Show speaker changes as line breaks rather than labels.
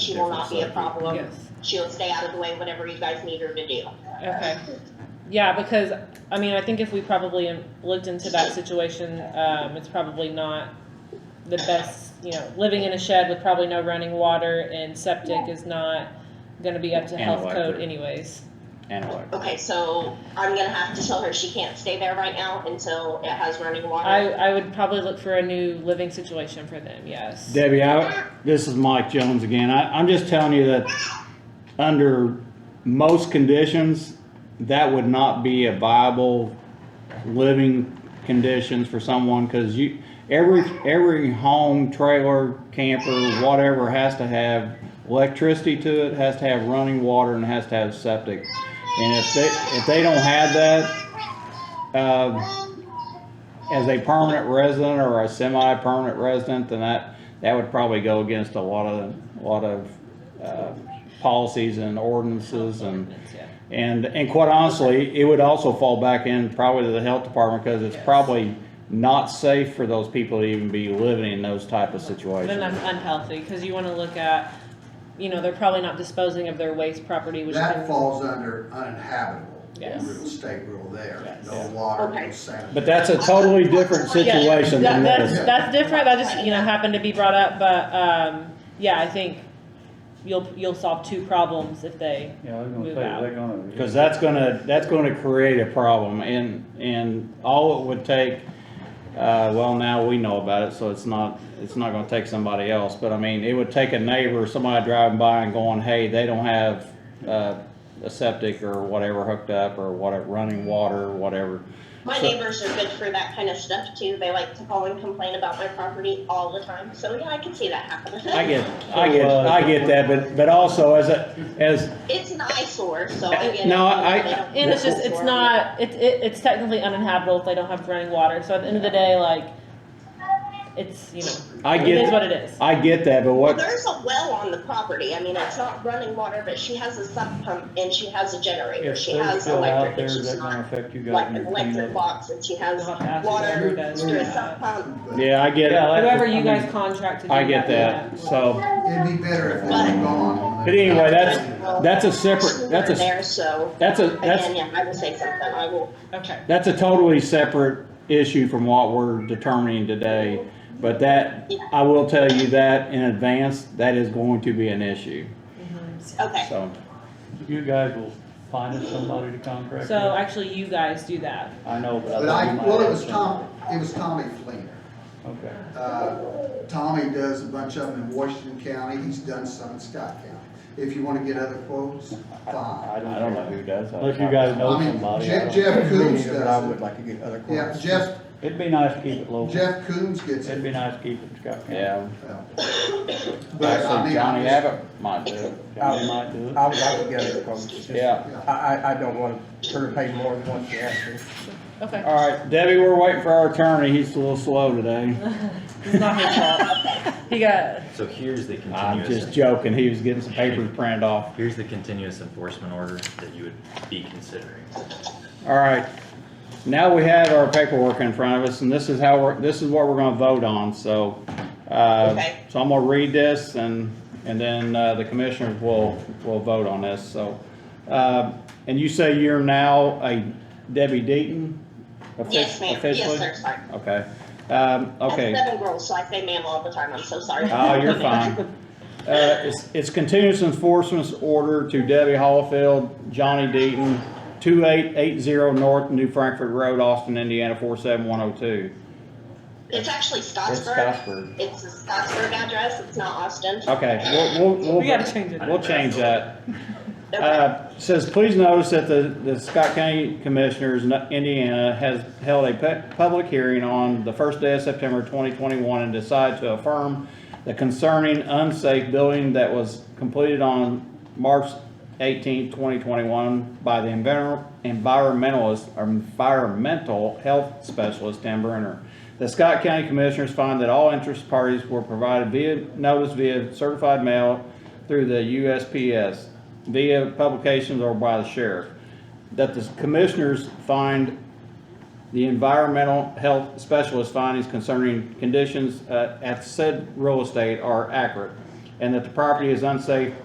She will not be a
Different subject.
problem.
Yes,
She'll stay out of the way, whatever you guys need her to do.
okay. Yeah, because, I mean, I think if we probably looked into that situation, um, it's probably not the best, you know, living in a shed with probably no running water and septic is not gonna be up to
And
health code
electric.
anyways.
And electric.
Okay, so I'm gonna have to tell her she can't stay there right now until it has running
I,
water.
I would probably look for a new living situation for them, yes.
Debbie, I, this is Mike Jones again. I, I'm just telling you that under most conditions, that would not be a viable living conditions for someone because you, every, every home, trailer, camper, whatever has to have electricity to it, has to have running water and has to have septic. And if they, if they don't have that, uh, as a permanent resident or a semi-permanent resident, then that, that would probably go against a lot of, a lot of, uh, policies and ordinances and,
Yeah.
and, and quite honestly, it would also fall back in probably to the health department, cause it's probably not safe for those people to even be living in those type of
Then that's
situations.
unhealthy, cause you wanna look at, you know, they're probably not disposing of their waste property, which
That
can,
falls under uninhabitable,
Yes.
real estate rule there,
Yes.
no water,
Okay.
no sand.
But that's a totally different situation
Yeah,
than
that- that's,
this.
that's different, that just, you know, happened to be brought up, but, um, yeah, I think you'll, you'll solve two problems if they,
Yeah, I was
Move
gonna say,
out.
they're gonna.
Cause that's gonna, that's gonna create a problem and, and all it would take, uh, well, now we know about it, so it's not, it's not gonna take somebody else, but I mean, it would take a neighbor, somebody driving by and going, hey, they don't have, uh, a septic or whatever hooked up or whatever, running water, or whatever.
My
So-
neighbors are good for that kind of stuff too. They like to call and complain about my property all the time, so yeah, I can see that
I
happening.
get, I get, I get that, but, but also as a, as,
It's an eyesore, so I get it.
No, I-
They don't-
and it's just, it's not, it, it, it's technically uninhabitable if they don't have running water, so at the end of the day, like, it's, you know,
I
it is
get,
what it is.
I get that, but
Well,
what,
there's a well on the property. I mean, it's not running water, but she has a sump pump and she has a generator.
If
She
they're
has
still out
electric,
there,
and she's
that's gonna
not
affect you
like
guys in
an
your
electric
cleanup.
box and she has
You'll have to ask
water
whoever does
through a
that.
sump pump.
yeah, I get it,
Whoever
I
you
mean,
guys contract to do
I get
yeah.
that, so.
It'd be better if it was gone.
But anyway, that's, that's a
Well,
separate, that's
we're
a,
There, so,
that's a,
again,
that's,
yeah, I will say something, I will,
Okay,
that's a totally separate issue from what we're determining today. But that, I will tell you that in advance, that is going to be an issue,
okay.
so.
You guys will find us somebody to contract with.
so actually you guys do that,
I know, but I.
But
thought
I,
you might
well, it
have
was Tom,
somebody.
it was Tommy Fleener.
Okay.
Uh, Tommy does a bunch of them in Washington County, he's done some in Scott County. If you wanna get other quotes, fine.
I
I don't know who does that.
Unless you guys know
I mean,
somebody. I
Jeff-
don't-
Jeff- Coons
But I
does it.
would like to get other quotes.
Yeah, Jeff,
It'd be nice to keep it local.
Jeff Coons gets
It'd
it.
be nice to keep it in Scott County.
Yeah,
Well, But I
actually
mean, I'm
Johnny
just-
Abbott might do it,
County might do it.
I would like to get other quotes. It's just-
yeah.
I, I, I don't want to pay more than what you asked for.
okay,
All right, Debbie, we're waiting for our attorney, he's a little slow today.
it's not his fault, he got,
So here's the
I'm just
continuous,
joking, he was getting some papers printed off.
here's the continuous enforcement order that you would be considering.
All right, now we have our paperwork in front of us, and this is how we're, this is what we're gonna vote on, so, uh,
Okay.
so I'm gonna read this, and, and then, uh, the commissioners will, will vote on this, so. Uh, and you say you're now a Debbie Deaton? offic-
Yes, ma'am, yes,
officially?
sir, sorry.
Okay, um,
I have
okay.
seven girls, so I say ma'am all the time, I'm so sorry.
Oh, you're fine. Uh, it's, it's continuous enforcement order to Debbie Hallfield, Johnny Deaton, two eight eight zero North New Frankfort Road, Austin, Indiana, four seven one oh two.
It's actually
It's
Scottsburg,
Scottsburg.
it's a Scottsburg address, it's not Austin.
Okay, we'll, we'll,
we gotta
we'll,
change it.
we'll change that.
Okay.
Uh, says, please notice that the, the Scott County Commissioners, in Indiana, has held a pu- public hearing on the first day of September twenty twenty-one and decided to affirm the concerning unsafe building that was completed on March 18, twenty twenty-one by the envir- environmentalist, or environmental health specialist Dan Brenner. The Scott County Commissioners find that all interest parties were provided via notice via certified mail through the USPS, via publications or by the sheriff. That the commissioners find the environmental health specialist findings concerning conditions uh, at said real estate are accurate. and that the property is unsafe